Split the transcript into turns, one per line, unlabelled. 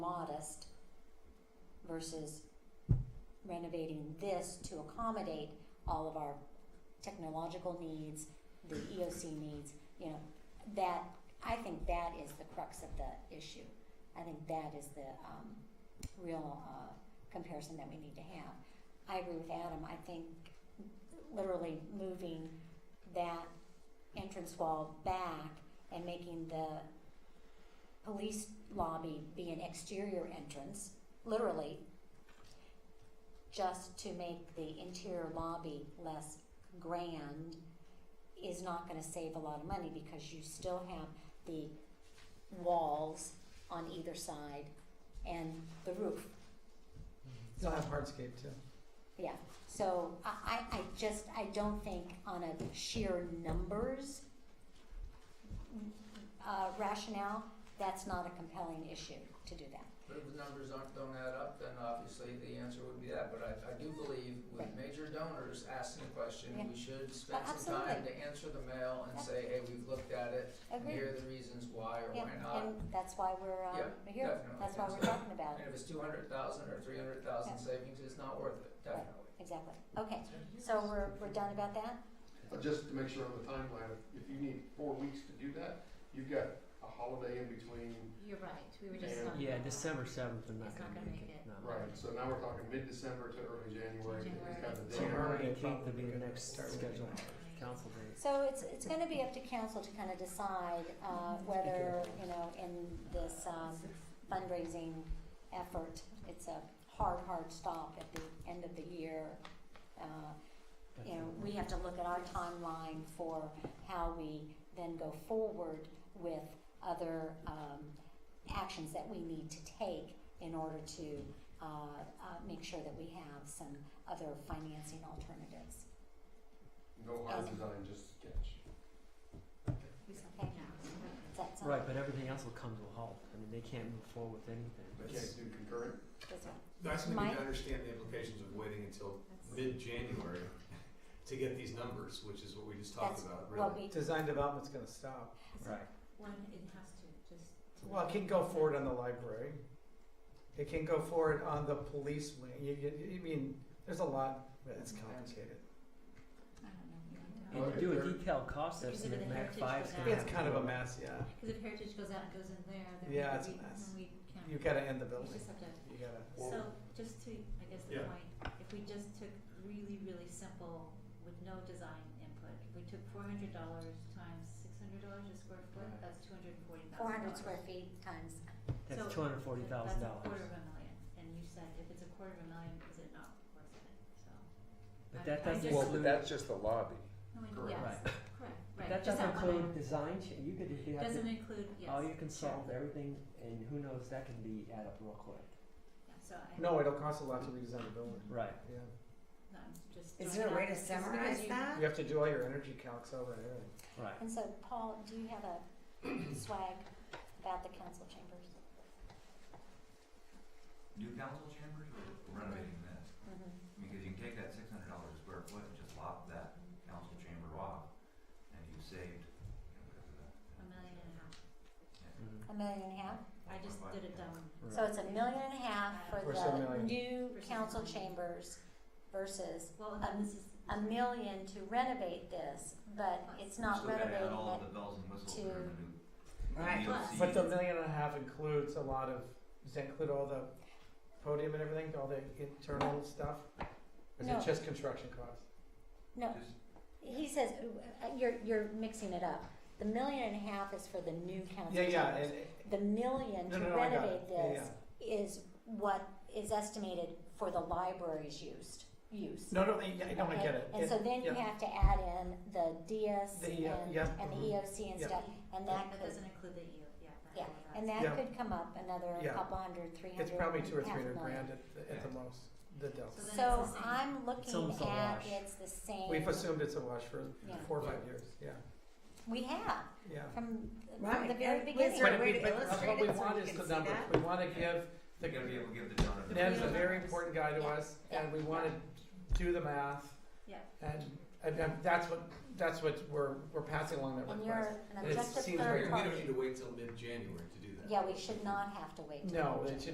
modest versus renovating this to accommodate all of our technological needs, the EOC needs, you know, that, I think that is the crux of the issue. I think that is the, um, real, uh, comparison that we need to have. I agree with Adam, I think literally moving that entrance wall back and making the police lobby be an exterior entrance, literally, just to make the interior lobby less grand is not gonna save a lot of money because you still have the walls on either side and the roof.
They'll have hardscape too.
Yeah, so I, I, I just, I don't think on a sheer numbers uh, rationale, that's not a compelling issue to do that.
But if the numbers aren't, don't add up, then obviously the answer would be that, but I, I do believe with
Right.
major donors asking a question,
Yeah.
we should spend
Oh,
some time to
absolutely.
answer the mail and
Yeah.
say, hey, we've looked at it, and
Agreed?
here are the reasons why or
Yeah,
why not.
and that's why we're, um,
Yeah,
we're here,
definitely.
that's why we're
So-
talking about
And
it,
if it's two hundred thousand or three hundred thousand
Yeah.
savings, it's not worth it,
Right.
definitely.
exactly. Okay, so we're, we're done about that?
Uh, Just to make sure on the timeline, if- if you need four weeks to do that, you've got a holiday in between,
You're right, we were just
And-
talking
Yeah,
about
December seventh, I'm not
It's
gonna
not
make
gonna
it,
make it.
no.
right, so now we're talking mid-December to early January, is kind of the
So
deadline.
January eighteenth would be the next
Start with
scheduled
it.
council date.
So it's, it's gonna be up to council to kind of decide, uh, whether, you know, in this, um, fundraising effort, it's a hard, hard stop at the end of the year. Uh, you know, we have to look at our timeline for how we then go forward with other um, actions that we need to take in order to uh, uh, make sure that we have some other financing alternatives.
No hard design, just sketch.
We said
Okay.
now.
Does that sound?
Right, but everything else will come to a halt. I mean, they can't move forward with anything.
You can't do concurrent,
That's right.
I just need
Mike?
to understand the implications of waiting until
That's-
mid-January to get these numbers, which is what we just talked
That's
about,
Well,
really.
we,
Design development's gonna stop.
Right.
When it has to, just. to-
Well, it can go forward on the library. It can go forward on the police wing. You, you, you mean, there's a lot, that's complicated.
I don't know, we don't know.
And
Well,
to do a
if they're-
detailed cost
Because of
estimate,
the
Mac
heritage
five's
for
gonna
that.
have
It's
to
kind of a
go-
mess, yeah.
Cause if heritage goes out and goes in there, then
Yeah,
maybe
it's a
we,
mess.
we can't.
You've gotta end the
We
building.
just have to,
You gotta,
Or-
so just to, I guess the
Yeah.
point, if we just took really, really simple with no design input, if we took four hundred dollars times six hundred dollars a square foot,
Right.
that's two hundred and forty thousand
four hundred
dollars.
square feet times,
So-
That's two hundred forty thousand
That's a
dollars.
quarter of a million, and you said if it's a quarter of a million, is it not worth it, so.
But
I-
that
I
doesn't
just- Well, but
include-
just the lobby.
No, I-
Correct.
yes, correct, right.
But that
just
doesn't
that one
include
item.
design cha- You could, you have
Doesn't
to,
include, yes.
all you can
sure.
solve everything, and who knows, that can be add up real quick.
Yeah, So I, no,
no, it'll cost a lot to redesign the building,
Right.
yeah.
I'm just.
Is
throwing
there a way
out-
to
just because
summarize
you-
that?
You have to do all your energy calcs over and everything.
Right.
and so Paul, do you have a swag about the council chambers?
New council chambers or renovating this?
Mm-hmm.
Because you can take that six hundred dollars square foot and just lop that council chamber off, and you've saved, you know, whatever that.
A million and a half.
Mhm.
A million and a half?
I just did it dumb.
So it's a million and a half for
Or so
the
million.
new
Versus
council
a million.
chambers versus
Well, and then this is.
a million to renovate this, but it's not
Still gotta add
renovating
all of
it.
the bells and whistles
to-
that are in the new.
Right.
EOC.
But the million and a half includes a lot of, does that include all the podium and everything, all the internal stuff? Or is
No.
it just construction costs?
No,
Just-
he says, uh, you're, you're mixing it up. The million and a half is for the new council
Yeah,
chambers.
yeah, and,
The million
no,
to
no, no, I got it,
renovate
yeah, yeah.
this is what is estimated for the library's used, use.
No, no, I- I don't
Okay?
get it.
And so then you
yeah.
have to add in the DS
The,
and,
uh, yeah,
and the
mhm.
EOC and
Yeah.
stuff, and that
That
could
doesn't include the EU, yeah. that-
Yeah,
that's-
And that
Yeah.
could come up another
Yeah.
couple hundred, three hundred,
It's probably two or
half
three hundred
million.
grand at, the- at the most, the delta.
So then
So
it's the same.
I'm
It's
looking
almost a
at
wash.
it's the same.
We've assumed it's a wash for
Yeah.
four or five years, yeah,
We have
yeah.
from, from
Right,
the very
and
beginning.
Is there a
But
way
we-
to
but
illustrate
What we
it so
want
we
is
can
the
see
numbers,
that?
we wanna give the,
You're gonna be able to give the donor. the-
Ned's a
Yeah.
very important guy to
Yeah.
us, and we wanna do the math.
Yeah.
And, and and that's what, that's what we're, we're passing along that
And
request.
you're an
And it
objective
seems
We
very-
third
don't need
party.
to wait till mid-January to do that.
Yeah, we should not have to wait. till
No,
June.
it should